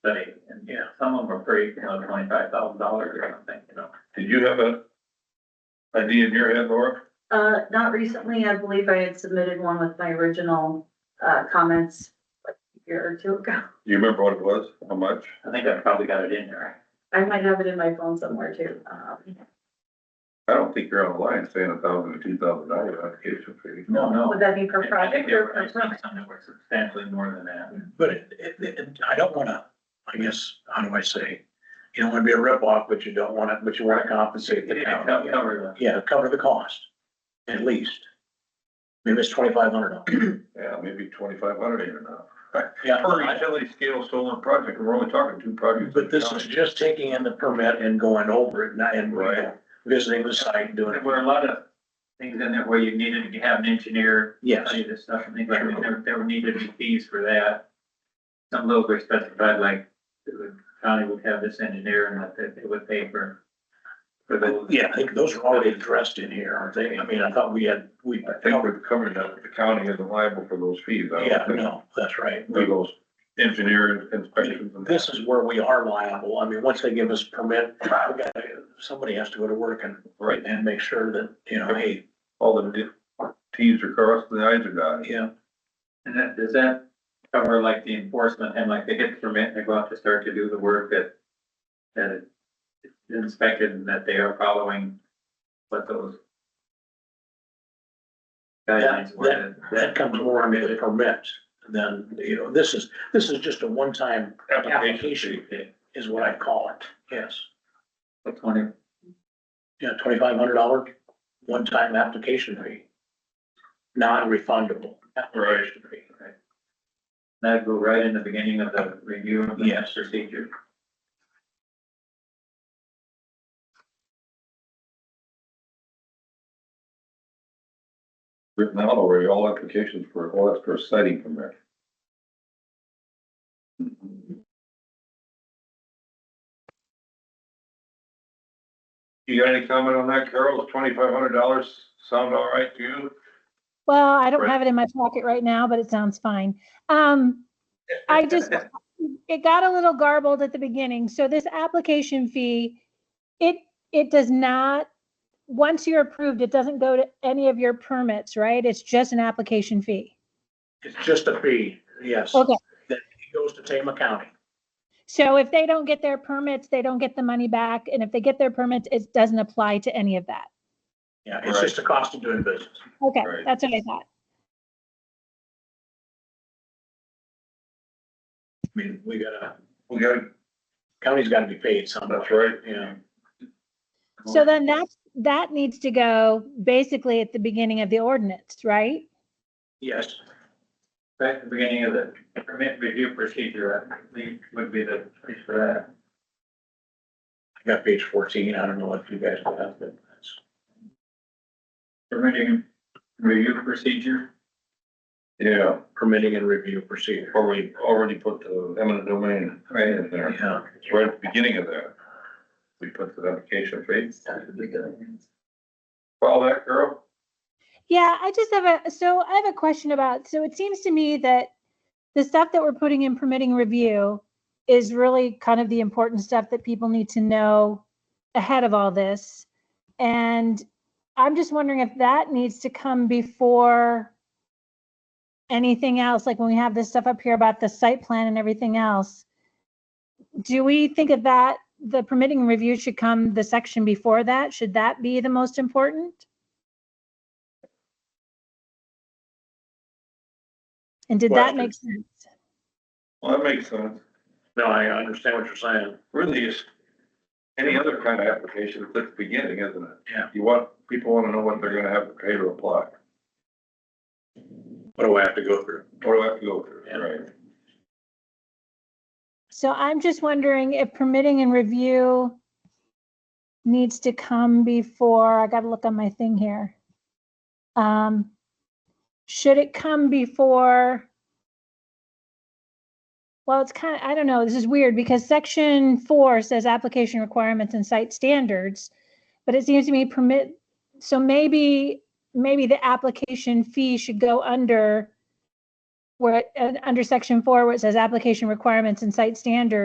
study, and, you know, some of them are pretty, you know, twenty-five thousand dollars or something, you know. Did you have a idea in your head, Laura? Uh, not recently, I believe I had submitted one with my original, uh, comments like a year or two ago. Do you remember what it was? How much? I think I probably got it in there. I might have it in my phone somewhere too. Um, I don't think you're on the line saying a thousand or two thousand dollar application fee. No, no. Would that be per I think project there or were, per? I think some that were substantially more than that. But it, it, it, I don't wanna, I guess, how do I say? You don't wanna be a ripoff, but you don't wanna, but you wanna compensate the It county. covered Yeah, cover the cost, at least. Maybe it's twenty-five hundred dollars. Yeah, maybe twenty-five hundred even now. Yeah, Per I- utility scale solar project, we're only talking two projects. but this is just taking in the permit and going over it, not, and Right. visiting the site and doing There it. were a lot of things in there where you needed to have an engineer Yes, study this stuff, and things like that. there, there were needed to be fees for that. Some those were specified, like, the county would have this engineer and that they- they would pay for. For those. yeah, I think those are already addressed in here, aren't they? I mean, I thought we had, we. I think we've covered that, the county isn't liable for those fees. I don't Yeah, think. no, that's right. For those engineer inspections and. This is where we are liable. I mean, once they give us permit, we gotta, somebody has to go to work and, Right, and make sure that, you know, hey, all the di- Ts are crossed and the Is are dotted. yeah, And that, does that cover like the enforcement and like they get the permit and they go out to start to do the work that, that it's inspected and that they are following what those guidelines were? that comes more under the permit than, you know, this is, this is just a one-time application is what I call it. Yes. The twenty, Yeah, twenty-five hundred dollar one-time application fee. Non-refundable. application fee. that'd go right in the beginning of the review of the Yes. procedure. Written out already, all applications for, all that's for citing permit. You got any comment on that, Carol? Twenty-five hundred dollars sound all right to you? Well, I don't Right. have it in my pocket right now, but it sounds fine. Um, I just, it got a little garbled at the beginning. So this application fee, it, it does not, once you're approved, it doesn't go to any of your permits, right? It's just an application fee. It's just a fee, yes. Okay. That goes to Tama County. So if they don't get their permits, they don't get the money back. And if they get their permits, it doesn't apply to any of that. Yeah, it's just the cost of doing business. Okay, Right. that's what I thought. I mean, we gotta, We got, county's gotta be paid somehow. that's right. Yeah. So then that, that needs to go basically at the beginning of the ordinance, right? Yes, Right at the beginning of the permit review procedure, I believe would be the, place for that. I got page fourteen. I don't know if you guys have, but that's, permitting review procedure. Yeah, permitting and review procedure. or we already put the eminent domain right in there. Yeah, It's right at the beginning of that. We put the application fee. Follow that, Carol? Yeah, I just have a, so I have a question about, so it seems to me that the stuff that we're putting in permitting review is really kind of the important stuff that people need to know ahead of all this. And I'm just wondering if that needs to come before anything else, like when we have this stuff up here about the site plan and everything else. Do we think of that, the permitting review should come the section before that? Should that be the most important? And did that Question. make sense? Well, that makes sense. no, I understand what you're saying. really is any other kind of application, it's at the beginning, isn't it? Yeah. You want, people wanna know what they're gonna have to pay to apply, What do I have to go through? what do I have to go through, Yeah. right? So I'm just wondering if permitting and review needs to come before, I gotta look on my thing here. Um, should it come before? Well, it's kind of, I don't know, this is weird because section four says application requirements and site standards. But it seems to me permit, so maybe, maybe the application fee should go under where, it- uh, under section four, where it says application requirements and site standards.